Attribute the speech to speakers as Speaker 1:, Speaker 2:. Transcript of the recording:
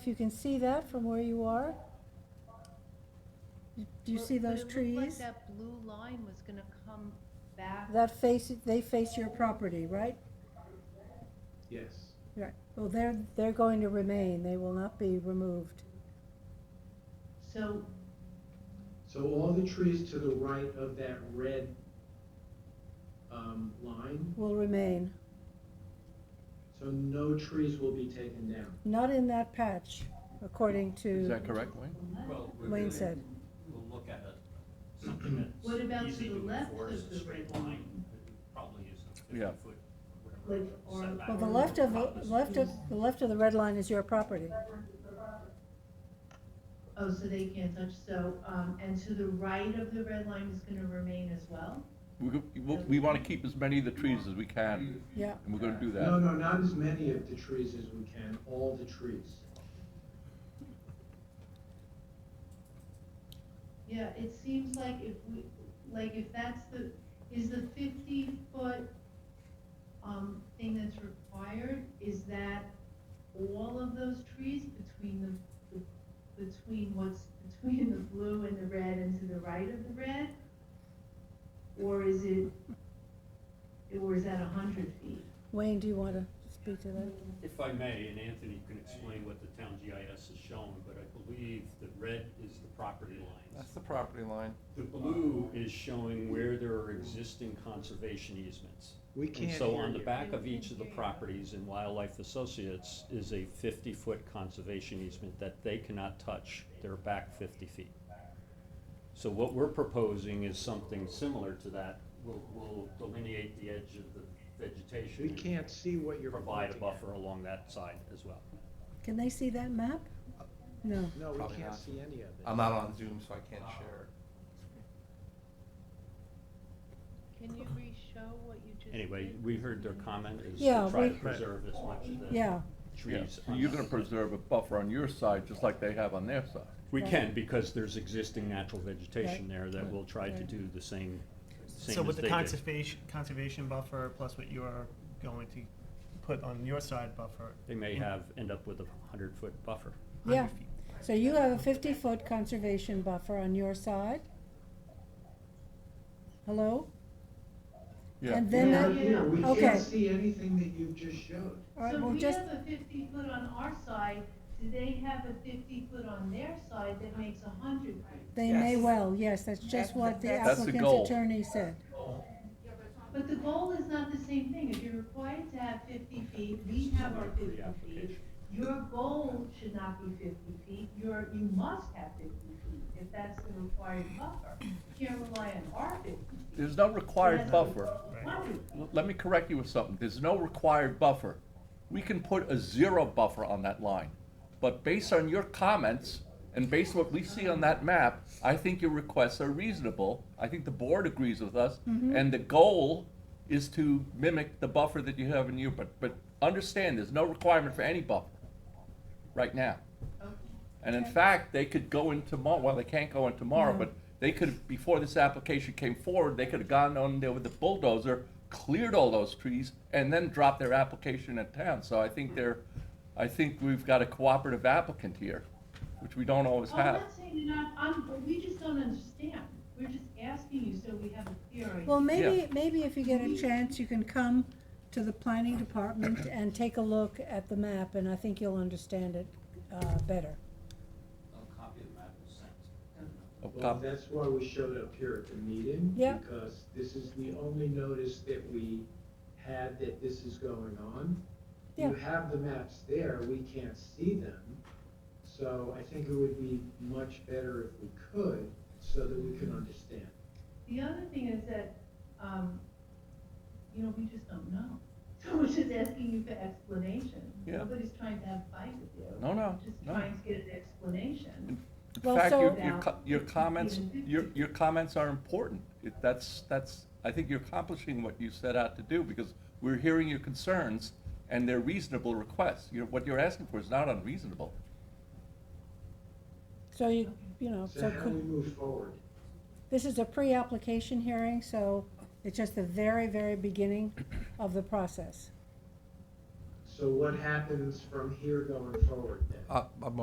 Speaker 1: If you can see that from where you are? Do you
Speaker 2: Well,
Speaker 1: see
Speaker 2: but
Speaker 1: those
Speaker 2: it looked like
Speaker 1: trees?
Speaker 2: that blue line was gonna come back.
Speaker 1: That face, they face your property, right?
Speaker 3: Yes.
Speaker 1: Right. Well, they're, they're going to remain, they will not be removed.
Speaker 2: So,
Speaker 3: So all the trees to the right of that red um, line,
Speaker 1: Will remain,
Speaker 3: so no trees will be taken down.
Speaker 1: not in that patch, according
Speaker 4: Is
Speaker 1: to
Speaker 4: that correct, Wayne?
Speaker 5: Well, we're
Speaker 1: Wayne
Speaker 5: gonna-
Speaker 1: said.
Speaker 5: We'll look at a- something that's.
Speaker 2: What about to
Speaker 5: easy
Speaker 2: the left
Speaker 5: enforce,
Speaker 2: of
Speaker 5: a
Speaker 2: the
Speaker 5: Straight
Speaker 2: red
Speaker 5: line, It probably is a
Speaker 4: Yeah.
Speaker 5: fifty foot, whatever.
Speaker 2: Like, or-
Speaker 5: setback
Speaker 1: Well, the
Speaker 5: from
Speaker 1: left of,
Speaker 5: top is-
Speaker 1: left of, the left of the red line is your property.
Speaker 2: oh, so they can't touch, so, um, and to the right of the red line is gonna remain as well?
Speaker 4: We, go- we want to keep as many of the trees as we can,
Speaker 1: Yeah,
Speaker 4: and we're going to do
Speaker 3: No,
Speaker 4: that.
Speaker 3: no, not as many of the trees as we can, all the trees.
Speaker 2: Yeah, it seems like if we, like if that's the, is the fifty foot, um, thing that's required, is that all of those trees between the, the- between what's between the blue and the red and to the right of the red? Or is it, or is that a hundred feet?
Speaker 1: Wayne, do you want to speak to that?
Speaker 5: If I may, and Anthony can explain what the town GIS is showing, but I believe the red is the property lines.
Speaker 4: the property line.
Speaker 5: The blue is showing where there are existing conservation easements.
Speaker 3: We
Speaker 5: And so on the back of each of the properties in Wildlife Associates is a fifty-foot conservation easement that they cannot touch. They're back fifty feet. So what we're proposing is something similar to that. We'll, we'll delineate the edge of the vegetation.
Speaker 3: We
Speaker 5: and
Speaker 3: can't see what you're.
Speaker 5: Provide a
Speaker 3: pointing at.
Speaker 5: buffer along that side as well.
Speaker 1: Can they see that map? No.
Speaker 3: No, we
Speaker 6: Probably
Speaker 3: can't
Speaker 6: not.
Speaker 3: see any of it.
Speaker 6: I'm not on Zoom, so I can't share.
Speaker 2: Can you re-show what you just
Speaker 5: Anyway, we heard their comment is
Speaker 1: Yeah,
Speaker 5: to try
Speaker 1: we-
Speaker 5: to preserve as much of the
Speaker 1: Yeah,
Speaker 4: Yeah,
Speaker 5: trees.
Speaker 4: so you're going to preserve a buffer on your side, just like they have on their side.
Speaker 5: We can, because there's existing natural
Speaker 1: Right.
Speaker 5: vegetation there that we'll try to
Speaker 1: Right.
Speaker 5: do the same, same
Speaker 7: So
Speaker 5: as
Speaker 7: with
Speaker 5: they
Speaker 7: the
Speaker 5: did.
Speaker 7: conservation, conservation buffer plus what you are going to put on your side buffer.
Speaker 5: They may have, end up with a hundred foot buffer.
Speaker 7: 100
Speaker 1: Yeah.
Speaker 7: feet.
Speaker 1: so you have a fifty-foot conservation buffer on your side? Hello?
Speaker 4: Yeah,
Speaker 1: And then, that-
Speaker 3: Yeah, we
Speaker 1: okay.
Speaker 3: can't see anything that you've just showed.
Speaker 1: all right,
Speaker 2: So
Speaker 1: well,
Speaker 2: we
Speaker 1: just,
Speaker 2: have a fifty foot on our side, do they have a fifty foot on their side that makes a hundred feet?
Speaker 1: they may
Speaker 6: Yes.
Speaker 1: well, yes, that's just what the
Speaker 4: That's the
Speaker 1: applicant's
Speaker 4: goal.
Speaker 1: attorney said.
Speaker 2: But the goal is not the same thing, if you're required to have fifty feet, we have our
Speaker 5: For the
Speaker 2: fifty feet.
Speaker 5: application.
Speaker 2: Your goal should not be fifty feet, your, you must have fifty feet, if that's the required buffer. You can't rely on our fifty feet.
Speaker 4: there's no required buffer.
Speaker 2: Hundred.
Speaker 4: L- Let me correct you with something. There's no required buffer. We can put a zero buffer on that line. But based on your comments and based on what we see on that map, I think your requests are reasonable. I think the board agrees with us. And the goal is to mimic the buffer that you have in you, but, but understand, there's no requirement for any buffer right now. And in fact, they could go in tomorrow, well, they can't go in tomorrow,
Speaker 1: No.
Speaker 4: but they could, before this application came forward, they could have gone on there with the bulldozer, cleared all those trees, and then dropped their application in town. So I think they're, I think we've got a cooperative applicant here, which we don't always
Speaker 2: Oh, I'm
Speaker 4: have.
Speaker 2: not saying you're not, I'm, but we just don't understand, we're just asking you so we have a clear idea.
Speaker 1: Well, maybe, maybe if you get a chance, you can come to the planning department and take a look at the map, and I think you'll understand it, uh, better.
Speaker 5: A copy of the map was sent.
Speaker 4: A
Speaker 3: Well,
Speaker 4: cop-
Speaker 3: that's why we showed up here at the meeting.
Speaker 1: Yeah.
Speaker 3: Because this is the only notice that we had that this is going on. You
Speaker 1: Yeah.
Speaker 3: have the maps there, we can't see them. So I think it would be much better if we could, so that we can understand.
Speaker 2: The other thing is that, um, you know, we just don't know. So we're just asking you for explanation.
Speaker 4: Yeah.
Speaker 2: Nobody's trying to have a fight with you.
Speaker 4: No, no,
Speaker 2: Just
Speaker 4: no.
Speaker 2: trying to get an explanation.
Speaker 4: In
Speaker 1: Well,
Speaker 4: fact,
Speaker 1: so-
Speaker 4: your, your co- your comments, your, your comments are important. It- That's, that's, I think you're accomplishing what you set out to do, because we're hearing your concerns, and they're reasonable requests. You're, what you're asking for is not unreasonable.
Speaker 1: So you, you know,
Speaker 3: So
Speaker 1: so
Speaker 3: how do we
Speaker 1: could,
Speaker 3: move forward?
Speaker 1: this is a pre-application hearing, so it's just the very, very beginning of the process.
Speaker 3: So what happens from here going forward then?
Speaker 4: Uh, I'm